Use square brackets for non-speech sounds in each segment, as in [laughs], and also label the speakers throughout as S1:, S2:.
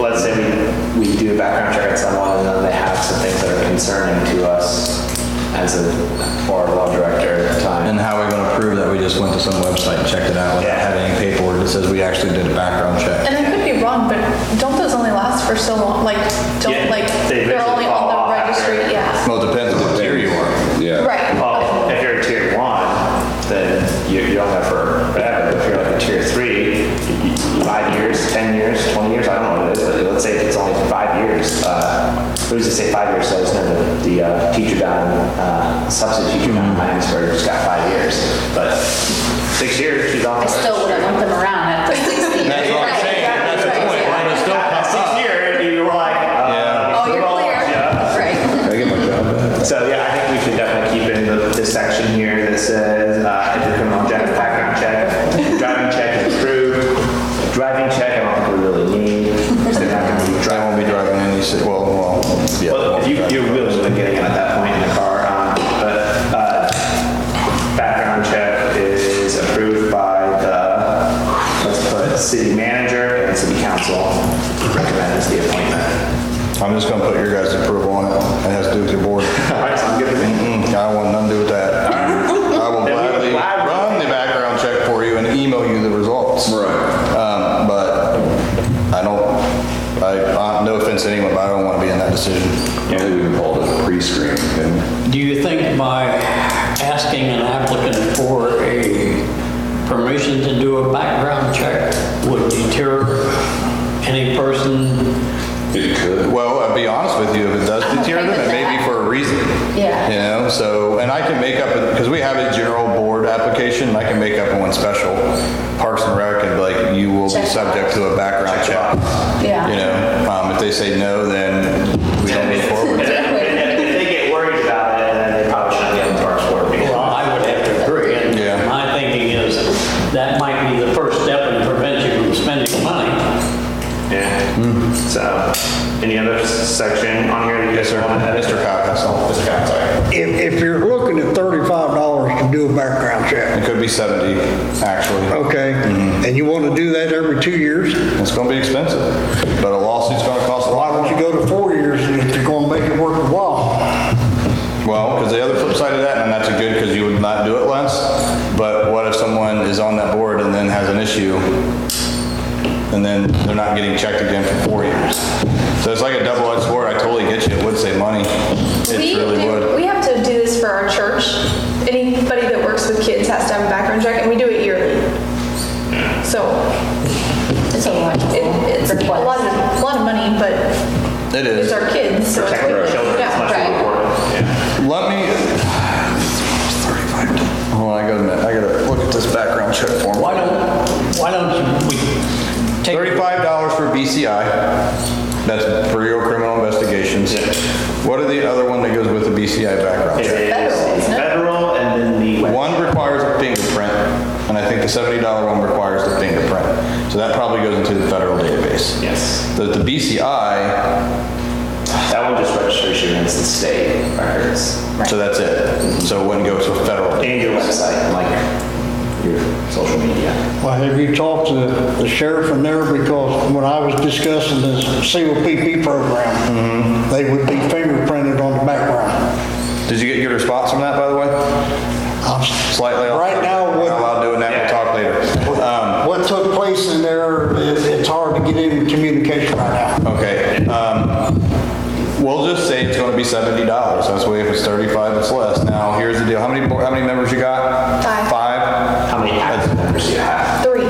S1: let's say we, we do a background check on someone and then they have some things that are concerning to us as a board law director at the
S2: And
S1: time.
S2: how are we gonna prove that we just went to some website and checked it out without
S1: Yeah.
S2: having any paperwork that says we actually did a background check?
S3: And I could be wrong, but don't those only last for so long? Like,
S1: Yeah,
S3: don't like,
S1: they
S3: they're
S1: eventually
S3: only
S1: fall
S3: on
S1: off
S3: the
S1: after.
S3: registry, yeah.
S2: Well, Oh, it depends on what tier you are.
S4: Yeah.
S3: Right.
S1: Well, oh, if you're a tier one, then you, you don't have for forever. But If you're like a tier three, y- y- five years, 10 years, 20 years, I don't know what it is, but let's say it's only five years. Uh, who's to say five years? So it's never the uh, teacher down, uh, substitute teacher down in Heinsberg just got five years. But six years, she's off.
S5: I still wouldn't want them around at the 60.
S2: That's what I'm saying, that's the point, and it'll still
S1: At
S2: pop
S1: six
S2: up.
S1: year, you were like, uh,
S2: Yeah.
S5: Oh, you're
S1: well, yeah.
S5: clear. Right.
S4: Can I get my job back?
S1: So yeah, I think we should definitely keep in the, this section here that says, uh, if your criminal check, background check, driving check is approved. Driving check, I don't think we really need. Because they're not gonna be
S2: I
S1: driving.
S2: won't be driving any, ci- well, well, yeah.
S1: Well, you, you're willingly getting it at that point in the car, um, but, uh, background check is approved by the, let's put city manager and city council recommends the appointment.
S2: I'm just gonna put your guys' approval on it, it has to do with your board.
S1: All right, sounds good to me.
S2: Mm, I want nothing to do with that. I will
S1: Then we would
S2: gladly
S1: gladly-
S2: run the background check for you and email you the results.
S4: Right.
S2: Um, but I don't, I, uh, no offense to anyone, but I don't want to be in that decision.
S4: I think we can call it a pre-screen. And
S6: Do you think by asking an applicant for a permission to do a background check would deter any person?
S4: it could.
S2: Well, I'll be honest with you, if
S5: [laughs]
S2: it does
S5: I'm
S2: deter
S5: okay
S2: them, it
S5: with
S2: may be
S5: that.
S2: for a reason.
S5: Yeah.
S2: You know, so, and I can make up, because we have a general board application, and I can make up one special, Parks and Rec, and be like, you will be
S5: Check.
S2: subject to a background check.
S5: Yeah.
S2: You know, um, if they say no, then we don't move forward.
S1: And then- and if they get worried about it, then they probably shouldn't get in the parks board. meeting.
S6: Well, I would have to agree. and
S2: Yeah.
S6: My thinking is that might be the first step in preventing from spending money.
S1: Yeah. So, any other s- section on here? that you
S2: Mm. Yes,
S1: guys
S2: sir.
S1: wanna edit?
S2: Mr. Cobb, that's all.
S1: Mr. Cobb, sorry.
S7: If, if you're looking at thirty-five dollars to do a background check,
S2: It could be 70, actually.
S7: okay,
S2: Mm-hmm.
S7: and you want to do that every two years,
S2: It's gonna be expensive, but a lawsuit's gonna cost a
S7: why
S2: lot.
S7: don't you go to four years if you're going to make it worth the while?
S2: Well, because the other flip side of that, and that's a good, because you would not do it less, but what if someone is on that board and then has an issue, and then they're not getting checked again for four years? So it's like a double-edged sword, I totally get you, it would save money,
S3: We
S2: it really
S3: do-
S2: would.
S3: We have to do this for our church. Anybody that works with kids has to have a background check, and we do it yearly. So
S5: It's a lot.
S3: it- it's a lot of, a lot of money, but
S2: It
S3: it's
S2: is.
S3: our kids, so it's
S1: Protect our
S3: worth it.
S1: children as much
S3: Yeah.
S1: as we can.
S2: Let me, hold on, I gotta, admit, I gotta look at this background check form.
S6: Why don't, why don't we take?
S2: Thirty-five dollars for BCI. That's for your criminal investigations. What are the other one that goes with the BCI background
S1: It
S2: check?
S1: is
S5: isn't it?
S1: federal and then the.
S2: One requires a fingerprint, and I think the seventy dollar one requires the fingerprint. So that probably goes into the federal database.
S1: Yes.
S2: The, the BCI,
S1: That one just registers you against the state records.
S2: so that's it. So it wouldn't go to a federal.
S1: And your website, and, like your social media.
S7: Well, have you talked to the sheriff in there, because when I was discussing this COPP
S2: Mm-hmm.
S7: program, they would be fingerprinted on the background.
S2: Did you get your response from that, by the way?
S7: I'm s-
S2: Slightly off.
S7: Right now,
S2: Not
S7: what-
S2: allowed doing that, we'll talk later. Um,
S7: What took place in there, it- it's hard to get any communication right
S2: Oh.
S7: now.
S2: Okay, um, we'll just say it's gonna be seventy dollars, that's why if it's thirty-five, it's less. Now, here's the deal, how many, bo- how many members you got?
S3: Five.
S2: Five?
S1: How many active members do you have?
S3: Three.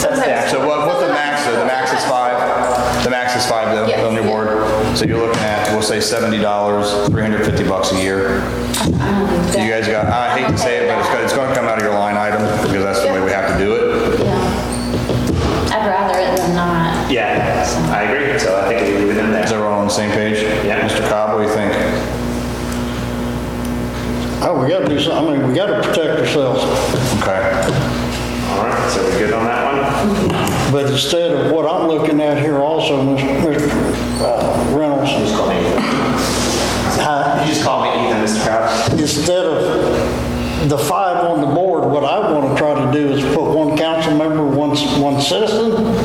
S1: That's
S2: So what, what's the max, though? the max is five, the max is five
S3: Yes.
S2: though, on your board. So you're looking at, we'll say seventy dollars, three hundred fifty bucks a year. You guys got, I hate to say it, but it's gonna, it's gonna come out of your line item, because that's the way we have to do it.
S5: Yeah. I'd rather it than not.
S1: Yeah, I agree. So I think we leave it in
S2: Is
S1: there.
S2: everyone on the same page?
S1: Yeah.
S2: Mr. Cobb, what do you think?
S7: Oh, we gotta do something, I mean, we gotta protect ourselves.
S2: Okay.
S1: All right, so we're good on that one?
S7: But instead of what I'm looking at here also, Mr. uh, Reynolds,
S1: Just call me Ethan. You just call me Ethan, Mr. Kraft.
S7: instead of the five on the board, what I want to try to do is put one council member, one, one citizen,